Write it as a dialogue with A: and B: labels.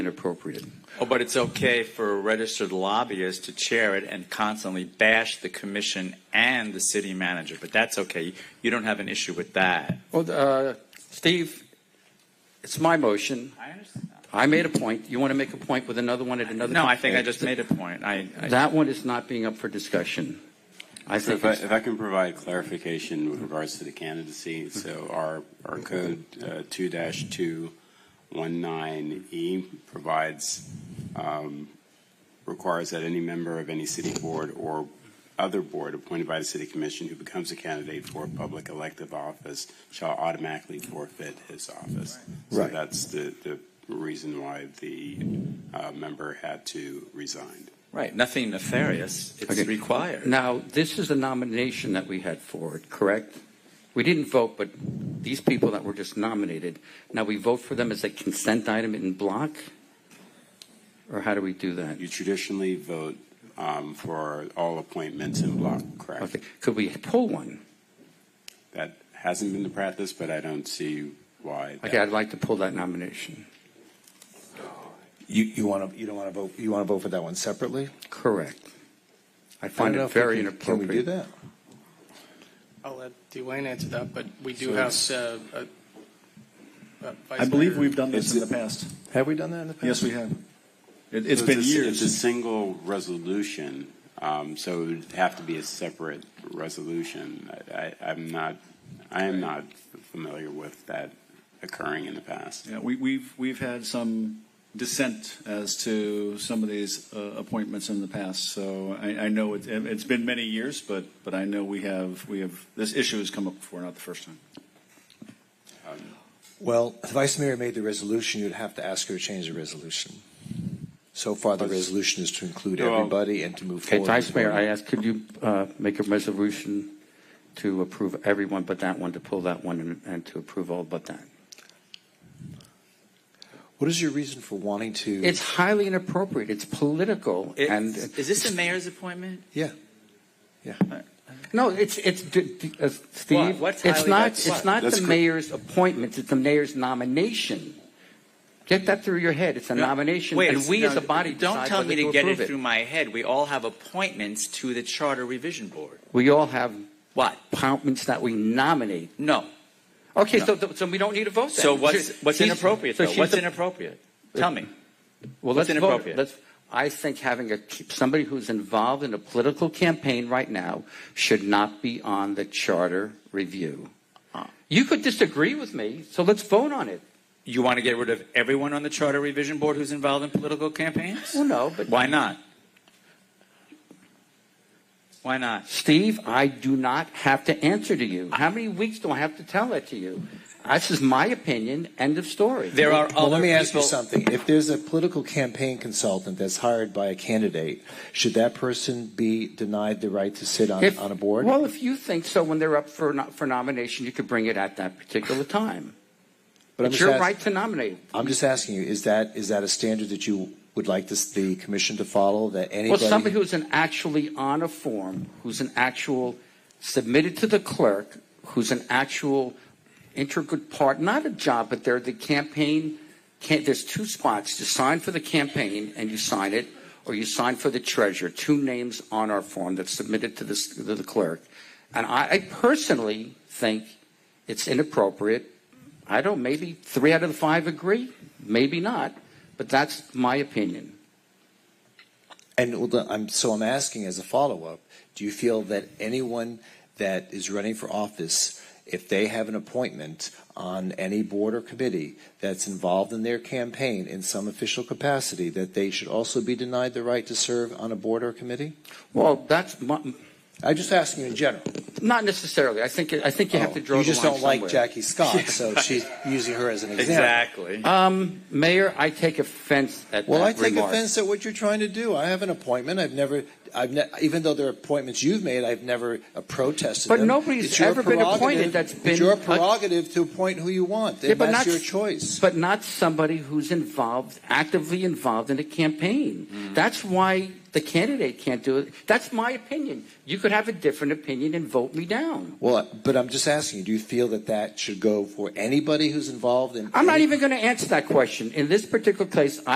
A: inappropriate.
B: Oh, but it's okay for a registered lobbyist to chair it and constantly bash the commission and the city manager, but that's okay. You don't have an issue with that.
A: Well, uh, Steve, it's my motion.
B: I understand.
A: I made a point. You want to make a point with another one at another?
B: No, I
A: time?
B: think I just made a point. I, I,
A: That one is not being up for discussion. I
C: So
A: think
C: if I,
A: it's
C: if I can provide clarification with regards to the candidacy, so our, our code uh, two two one nine E provides, um, requires that any member of any city board or other board appointed by the city commission who becomes a candidate for a public elective office shall automatically forfeit his office. So
D: Right.
C: that's the, the reason why the uh, member had to resign.
B: right, nothing nefarious. It's
A: Okay.
B: required.
A: Now, this is a nomination that we had for it, correct? We didn't vote, but these people that were just nominated, now we vote for them as a consent item in block? Or how do we do that?
C: You traditionally vote um, for all appointments in block, correct?
A: Okay, could we pull one?
C: That hasn't been the practice, but I don't see why. that-
A: Okay, I'd like to pull that nomination.
D: You, you want to, you don't want to vote, you want to vote for that one separately?
A: Correct. I
D: I don't
A: find
D: know
A: it
D: if we
A: very
D: can-
A: inappropriate.
D: Can we do that?
E: I'll let Dwayne answer that, but we do
D: So-
E: have uh, a- a vice
F: I believe
E: mayor.
F: we've done this in the
C: It's-
F: past.
D: Have we done that in the past?
F: Yes, we have. It, it's
C: So
F: been
C: it's a- It's a
F: years.
C: single resolution, um, so it would have to be a separate resolution. I- I, I'm not, I am not familiar with that occurring in the past.
F: Yeah, we, we've, we've had some dissent as to some of these uh, appointments in the past. So I, I know it, it's been many years, but, but I know we have, we have, this issue has come up before, not the first time.
D: Well, the vice mayor made the resolution, you'd have to ask her to change the resolution. So far, the resolution is to include
C: Well-
D: everybody and to move
A: Okay,
D: forward.
A: Vice Mayor, I ask, could you uh, make a resolution to approve everyone but that one, to pull that one, and- and to approve all but that?
D: What is your reason for wanting to?
A: It's highly inappropriate, it's political,
B: It-
A: and,
B: is this the mayor's appointment?
A: no, it's, it's, d- d- uh, Steve,
B: What's
A: it's
B: highly-
A: not,
B: that's-
A: it's not
C: That's
A: the
C: cor-
A: mayor's appointment, it's the mayor's nomination. Get that through your head, it's a nomination,
B: Wait,
A: and we
B: no,
A: as a body
B: Don't
A: decide
B: tell
A: whether
B: me
A: to
B: to get
A: approve
B: it through
A: it.
B: my head. We all have appointments to the Charter Revision Board.
A: We all have
B: What?
A: appointments that we nominate.
B: No.
A: Okay,
B: No.
A: so, th- so we don't need a vote then.
B: So what's,
A: She's-
B: what's
A: she's-
B: inappropriate
A: so
B: though?
A: she's
B: What's
A: the-
B: inappropriate? Tell me.
A: Well,
B: What's
A: let's vote.
B: inappropriate?
A: Let's, I think having a, somebody who's involved in a political campaign right now should not be on the charter review. You could disagree with me, so let's vote on it.
B: You want to get rid of everyone on the Charter Revision Board who's involved in political campaigns?
A: Well, no, but
B: Why not? Why not?
A: Steve, I do not have to answer to you. How many weeks do I have to tell that to you? This is my opinion, end of story.
B: There are
D: Well,
B: other
D: let me ask you
B: people-
D: something. If there's a political campaign consultant that's hired by a candidate, should that person be denied the right to sit on,
A: If-
D: on a board?
A: Well, if you think so, when they're up for, no- for nomination, you could bring it at that particular time.
D: but I'm
A: It's
D: just,
A: your
D: ask-
A: right to nominate.
D: I'm just asking you, is that, is that a standard that you would like this, the commission to follow, that
A: Well,
D: anybody?
A: somebody who's an actually on a form, who's an actual submitted to the clerk, who's an actual integral part, not a job, but they're the campaign. Can, there's two spots: you sign for the campaign and you sign it, or you sign for the treasurer. Two names on our form that's submitted to, this, to the clerk. And I, I personally think it's inappropriate. I don't. Maybe three out of the five agree, maybe not, but that's my opinion.
D: And well, the- I'm, so I'm asking as a follow-up, do you feel that anyone that is running for office, if they have an appointment on any board or committee that's involved in their campaign in some official capacity, that they should also be denied the right to serve on a board or committee?
A: Well, that's my,
D: I'm just asking you in general.
A: not necessarily. I think I think you have to draw
D: Oh, You
A: the
D: just
A: line
D: don't like
A: somewhere.
D: Jackie Scott, so she's using her as an example.
B: Exactly.
A: Um, Mayor, I take offense at
D: Well,
A: that
D: I take
A: remark.
D: offense at what you're trying to do. I have an appointment. I've never, I've ne- even though there are appointments you've made, I've never uh, protested
A: But
D: them.
A: nobody's
D: It's your
A: ever been appointed
D: prerogative-
A: that's been-
D: It's your prerogative to appoint who you want.
A: Yeah,
D: And
A: but
D: that's
A: not-
D: your choice.
A: But not somebody who's involved, actively involved in a campaign.
D: Mm.
A: That's why the candidate can't do it. That's my opinion. You could have a different opinion and vote me down.
D: Well, but I'm just asking you, do you feel that that should go for anybody who's involved in
A: I'm not
D: any-
A: even going to answer that question. In this particular case,